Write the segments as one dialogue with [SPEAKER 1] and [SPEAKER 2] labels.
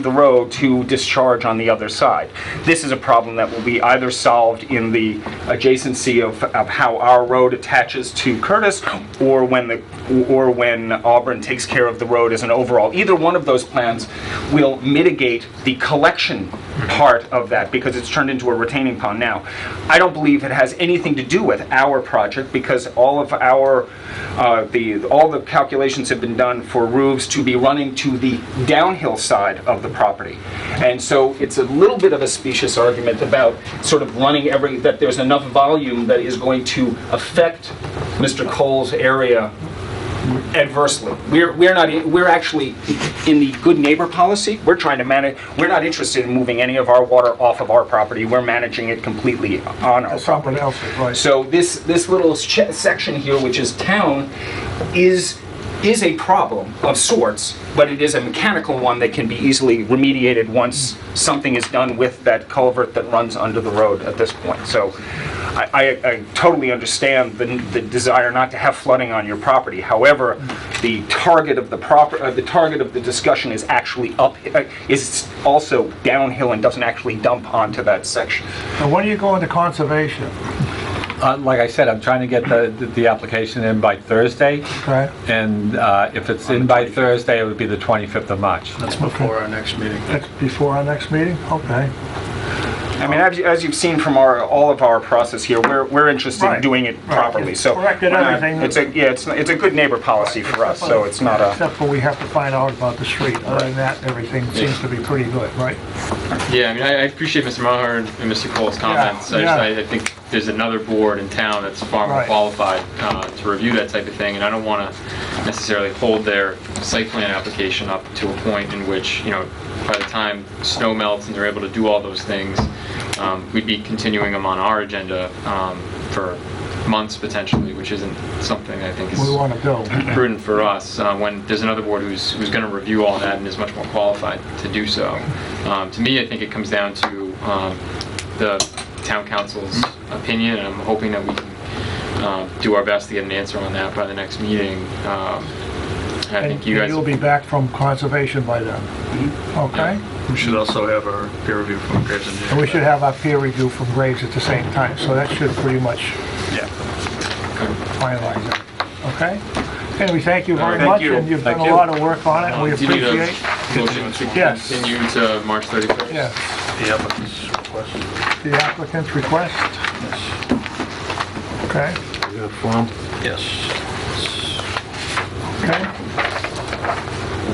[SPEAKER 1] road to discharge on the other side. This is a problem that will be either solved in the adjacency of, of how our road attaches to Curtis or when the, or when Auburn takes care of the road as an overall. Either one of those plans will mitigate the collection part of that because it's turned into a retaining pond now. I don't believe it has anything to do with our project because all of our, uh, the, all the calculations have been done for roofs to be running to the downhill side of the property. And so it's a little bit of a specious argument about sort of running every, that there's enough volume that is going to affect Mr. Cole's area adversely. We're, we're not, we're actually, in the good neighbor policy, we're trying to manage, we're not interested in moving any of our water off of our property. We're managing it completely on our property.
[SPEAKER 2] Someone else's, right?
[SPEAKER 1] So this, this little ch- section here, which is town, is, is a problem of sorts, but it is a mechanical one that can be easily remediated once something is done with that culvert that runs under the road at this point. So I, I, I totally understand the, the desire not to have flooding on your property. However, the target of the proper, uh, the target of the discussion is actually up, uh, is also downhill and doesn't actually dump onto that section.
[SPEAKER 2] Now, when are you going to conservation?
[SPEAKER 3] Uh, Like I said, I'm trying to get the, the application in by Thursday,
[SPEAKER 2] Okay?
[SPEAKER 3] and uh, if it's in by Thursday, it would be the 25th of March.
[SPEAKER 4] That's before our next meeting.
[SPEAKER 2] That's before our next meeting? Okay.
[SPEAKER 1] I mean, as, as you've seen from our, all of our process here, we're, we're interested in
[SPEAKER 2] Right.
[SPEAKER 1] doing it
[SPEAKER 2] Right.
[SPEAKER 1] properly, so.
[SPEAKER 2] Corrected
[SPEAKER 1] we're not-
[SPEAKER 2] everything.
[SPEAKER 1] It's a, yeah, it's, it's a good neighbor policy for us, so it's not a,
[SPEAKER 2] Except for we have to find out about the street. Other than that, everything seems to be pretty good, right?
[SPEAKER 5] Yeah, I mean, I I appreciate Mr. Maher and and Mr. Cole's comments. I just-
[SPEAKER 2] yeah.
[SPEAKER 5] I I think there's another board in town that's far more
[SPEAKER 2] Right.
[SPEAKER 5] qualified uh, to review that type of thing, and I don't want to necessarily hold their site plan application up to a point in which, you know, by the time snow melts and they're able to do all those things, um, we'd be continuing them on our agenda um, for months potentially, which isn't something I think is
[SPEAKER 2] We want to build.
[SPEAKER 5] prudent for us uh, when there's another board who's, who's going to review all that and is much more qualified to do so. Um, to me, I think it comes down to um, the town council's opinion, and I'm hoping that we can um, do our best to get an answer on that by the next meeting. Um, and I
[SPEAKER 2] And
[SPEAKER 5] think you guys. Mm-hmm.
[SPEAKER 2] you'll be back from conservation by then. Okay?
[SPEAKER 4] We should also have our peer review from Graves
[SPEAKER 2] And we
[SPEAKER 4] Engineering.
[SPEAKER 2] should have our peer review from Graves at the same time, so that should pretty much finalize it. Okay? And we thank you very
[SPEAKER 5] Thank
[SPEAKER 2] much,
[SPEAKER 5] you.
[SPEAKER 2] and you've done
[SPEAKER 3] Thank
[SPEAKER 2] a
[SPEAKER 3] you.
[SPEAKER 2] lot of work on it, and we
[SPEAKER 5] Do you need a
[SPEAKER 2] appreciate.
[SPEAKER 5] Motion to
[SPEAKER 2] Yes.
[SPEAKER 5] continue to March 31st.
[SPEAKER 2] Yeah,
[SPEAKER 4] The applicant's request.
[SPEAKER 2] the applicant's request, okay?
[SPEAKER 4] Yes.
[SPEAKER 2] Okay?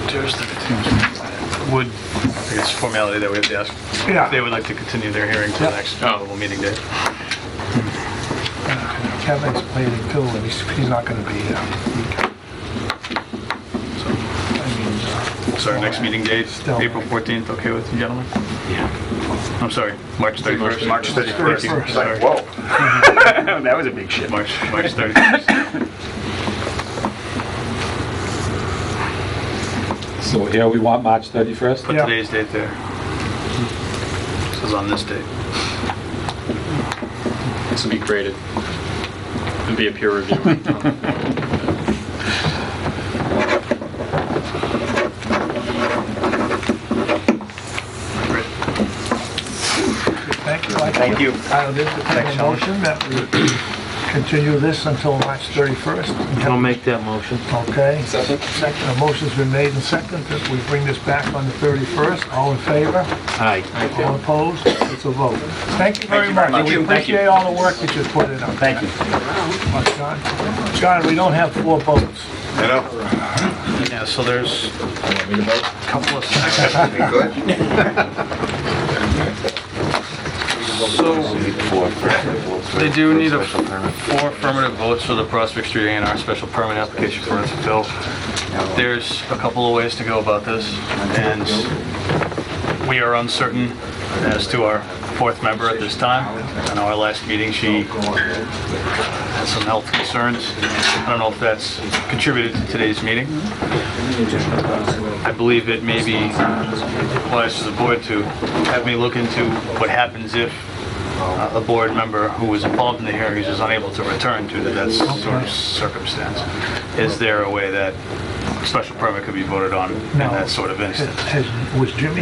[SPEAKER 4] There's the- Would, I guess formality that we have to ask.
[SPEAKER 2] Yeah.
[SPEAKER 4] They would like to continue their hearing to the
[SPEAKER 2] Yeah.
[SPEAKER 4] next available meeting day.
[SPEAKER 2] Kevin's planning too, and he's, he's not gonna be here.
[SPEAKER 4] So our next meeting date,
[SPEAKER 2] Still.
[SPEAKER 4] April 14th, okay with you gentlemen? Yeah. I'm sorry, March 31st.
[SPEAKER 1] March
[SPEAKER 4] Thank you.
[SPEAKER 2] 31st.
[SPEAKER 1] it's
[SPEAKER 4] Sorry.
[SPEAKER 1] like, whoa. That was a big shift.
[SPEAKER 4] March, March 31st.
[SPEAKER 3] So here we want March 31st?
[SPEAKER 4] Put
[SPEAKER 2] Yeah.
[SPEAKER 4] today's date there. This is on this date.
[SPEAKER 5] This will be graded. It'll be a peer review.
[SPEAKER 2] Thank you. Uh, I-
[SPEAKER 1] Thank you.
[SPEAKER 2] I'll entertain a motion that we continue this until March 31st.
[SPEAKER 6] I'll make that motion.
[SPEAKER 2] Okay? Second. Second, a motion's been made and second that we bring this back on the 31st. All in favor?
[SPEAKER 6] Aye.
[SPEAKER 2] All opposed? It's a vote. Thank you very much. We appreciate all the work that you put in on that.
[SPEAKER 1] Thank you.
[SPEAKER 2] Much, John. John, we don't have four votes.
[SPEAKER 4] Yeah, so there's a couple of sections. So, they do need a four affirmative votes for the Prospect Street A and R special permit application for its fill. There's a couple of ways to go about this, and we are uncertain as to our fourth member at this time. I know our last meeting, she had some health concerns. I don't know if that's contributed to today's meeting. I believe it maybe applies to the board to have me look into what happens if uh, a board member who was involved in the hearings is unable to return due to that sort of circumstance. Is there a way that a special permit could be voted on in
[SPEAKER 2] No.
[SPEAKER 4] that sort of instance?
[SPEAKER 2] Has- Was Jimmy